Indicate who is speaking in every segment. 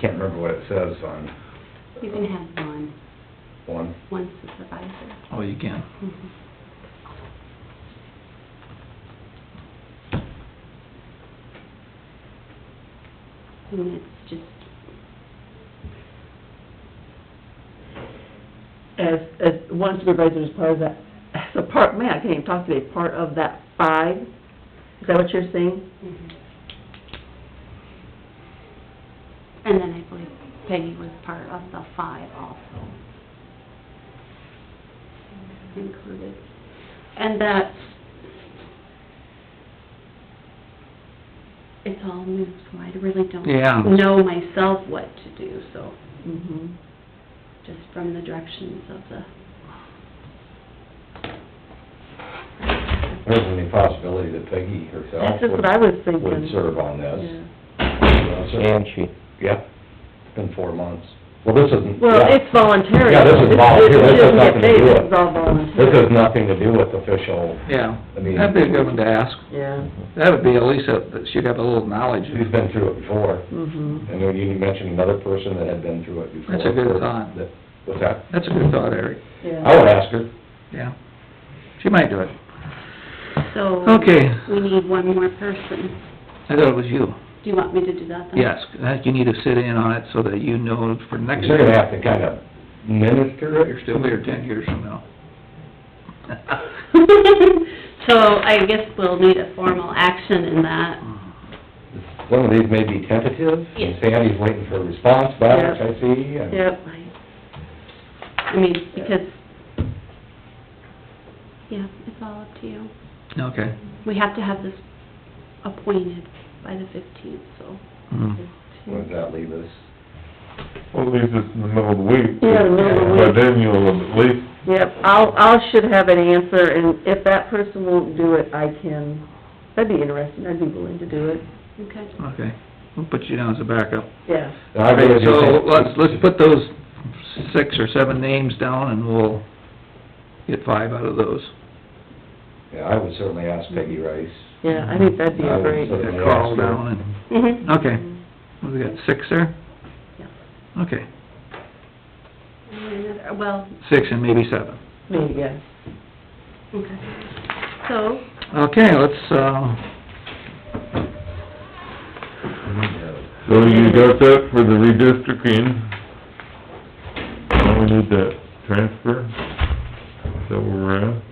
Speaker 1: can't remember what it says on
Speaker 2: You can have one,
Speaker 1: one.
Speaker 2: one supervisor.
Speaker 3: Oh, you can.
Speaker 2: Mhm. And it's just,
Speaker 4: as, as one supervisor is part of that, as a part, man, I can't even talk today, part of that five? Is that what you're saying?
Speaker 2: mhm. and then I believe Peggy was part of the five also. Included. And that's, it's all new, so I really don't
Speaker 3: Yeah.
Speaker 2: know myself what to do, so.
Speaker 4: Mm-hmm.
Speaker 2: just from the directions of the...
Speaker 1: There's any possibility that Peggy herself
Speaker 4: That's just
Speaker 1: would,
Speaker 4: what I was thinking.
Speaker 1: would serve on
Speaker 4: Yeah.
Speaker 1: this. And she? Yeah, it's been four months. Well, this isn't,
Speaker 4: Well,
Speaker 1: yeah,
Speaker 4: it's voluntary.
Speaker 1: Yeah, this is volunteer. This has
Speaker 4: doesn't get
Speaker 1: nothing to do
Speaker 4: paid.
Speaker 1: with-
Speaker 4: This is all volunteer.
Speaker 1: this has nothing to do with official,
Speaker 3: Yeah,
Speaker 1: I mean,
Speaker 3: that'd be a good one to ask.
Speaker 4: Yeah,
Speaker 3: That would be at least, a- that she'd have a little knowledge.
Speaker 1: she's been through it before.
Speaker 4: mm-hmm.
Speaker 1: And then you mentioned another person that had been through it before.
Speaker 3: That's a good thought.
Speaker 1: That- What's that?
Speaker 3: That's a good thought, Eric,
Speaker 1: I would ask her.
Speaker 3: yeah. She might do it.
Speaker 2: So...
Speaker 3: Okay.
Speaker 2: We need one more person.
Speaker 3: I thought it was you.
Speaker 2: Do you want me to do that then?
Speaker 3: Yes, I think you need to sit in on it so that you know for next
Speaker 1: Oh. You're gonna
Speaker 3: year,
Speaker 1: have to kind of minister
Speaker 3: you're
Speaker 1: it.
Speaker 3: still here ten years from now.
Speaker 2: So I guess we'll need a formal action in that.
Speaker 1: Some of these may be tentative, and
Speaker 2: Yes.
Speaker 1: Sandy's waiting for a response back, I see, and...
Speaker 4: Yep,
Speaker 2: I mean, because, yeah, it's all up to you.
Speaker 3: Okay.
Speaker 2: We have to have this appointed by the 15th, so...
Speaker 3: Hmm.
Speaker 1: What does that leave us?
Speaker 5: Well, at least it's in the middle of the week.
Speaker 4: Yeah, the middle of the week.
Speaker 5: But then you'll at least,
Speaker 4: yep, I'll, I'll should have an answer, and if that person won't do it, I can, that'd be interesting, I'd be willing to do it,
Speaker 2: Okay.
Speaker 3: Okay, we'll put you down as a backup.
Speaker 4: yeah.
Speaker 1: I really do
Speaker 3: So
Speaker 1: think-
Speaker 3: let's, let's put those six or seven names down and we'll get five out of those.
Speaker 1: Yeah, I would certainly ask Peggy Rice.
Speaker 4: Yeah, I think that'd be
Speaker 1: I would
Speaker 4: great.
Speaker 1: say-
Speaker 3: Get a call down
Speaker 4: Mhm.
Speaker 2: Mm-hmm.
Speaker 3: and, okay. What, we got six there?
Speaker 4: Yeah.
Speaker 3: Okay,
Speaker 2: And another- Well,
Speaker 3: six and maybe seven.
Speaker 4: Maybe, yeah.
Speaker 2: okay. So,
Speaker 3: Okay, let's, uh,
Speaker 5: so you got that for the redistricting. Now we need that transfer, is that where we're at?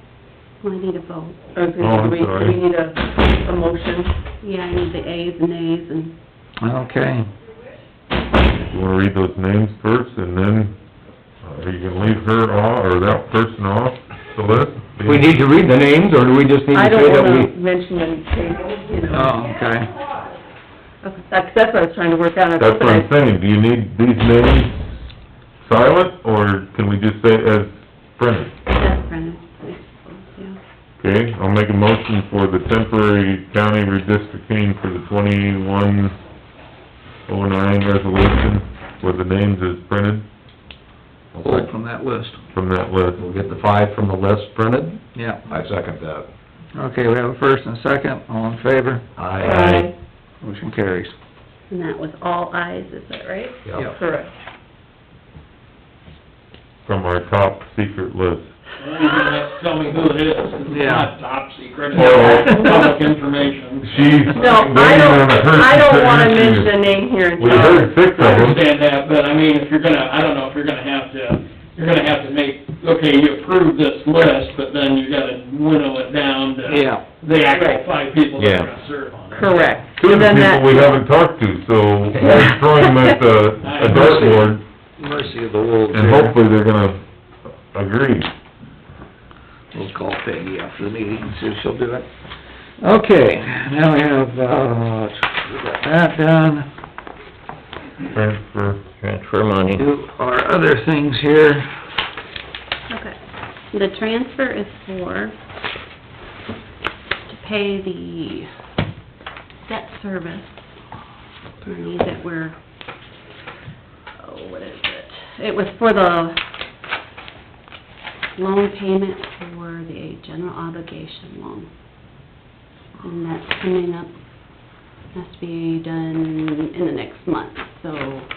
Speaker 2: I need a vote.
Speaker 4: Okay,
Speaker 5: Oh,
Speaker 4: so
Speaker 5: I'm
Speaker 4: we,
Speaker 5: sorry.
Speaker 4: we need a, a motion.
Speaker 2: Yeah, I need the ayes and nays and...
Speaker 3: okay,
Speaker 5: You wanna read those names first, and then, uh, are you gonna leave her off, or that person off the list?
Speaker 1: We need to read the names, or do we just need
Speaker 4: I
Speaker 1: to
Speaker 4: don't
Speaker 1: say that
Speaker 4: wanna
Speaker 1: we...
Speaker 4: mention any case, you know,
Speaker 3: oh, okay.
Speaker 4: that's that's what I was trying to work out. I thought
Speaker 5: That's what I'm
Speaker 4: that
Speaker 5: saying, do you need these names silent, or can we just say as printed?
Speaker 2: That's Brennan, I suppose, yeah.
Speaker 5: Okay, I'll make a motion for the temporary county redistricting for the twenty-one oh nine resolution with the names as printed
Speaker 3: Pulled from that list,
Speaker 5: from that list.
Speaker 1: We'll get the five from the list printed.
Speaker 3: yeah.
Speaker 1: I second that.
Speaker 3: Okay, we have a first and a second, all in favor,
Speaker 1: Aye.
Speaker 3: motion carries.
Speaker 2: And that was all eyes, is that right?
Speaker 1: Yeah.
Speaker 4: Correct.
Speaker 5: From our top secret list.
Speaker 6: Well, you're gonna have to tell me who it is, it's
Speaker 3: Yeah.
Speaker 6: not top secret,
Speaker 5: Oh.
Speaker 6: it's public information.
Speaker 5: She's
Speaker 4: No, I don't, I don't wanna mention a name here in
Speaker 5: We
Speaker 4: town.
Speaker 5: heard six of
Speaker 6: I
Speaker 5: them.
Speaker 6: understand that, but I mean, if you're gonna, I don't know if you're gonna have to, you're gonna have to make, okay, you approve this list, but then you gotta winnow it down to
Speaker 3: Yeah,
Speaker 6: the actual
Speaker 4: Right.
Speaker 6: five people that
Speaker 5: Yeah.
Speaker 6: are gonna serve on it.
Speaker 4: Correct.
Speaker 5: Two
Speaker 4: And then
Speaker 5: people
Speaker 4: that-
Speaker 5: we haven't talked to, so we're throwing them at the, a dartboard,
Speaker 3: mercy of the world
Speaker 5: and
Speaker 3: here.
Speaker 5: hopefully they're gonna agree.
Speaker 3: We'll call Peggy after the meeting and see if she'll do it. Okay, now we have, uh, we got that done.
Speaker 5: Transfer.
Speaker 7: Transfer money.
Speaker 3: Do our other things here.
Speaker 2: Okay. The transfer is for, to pay the debt service money that we're, oh, what is it? It was for the loan payment for the general obligation loan. And that's coming up, has to be done in the next month, so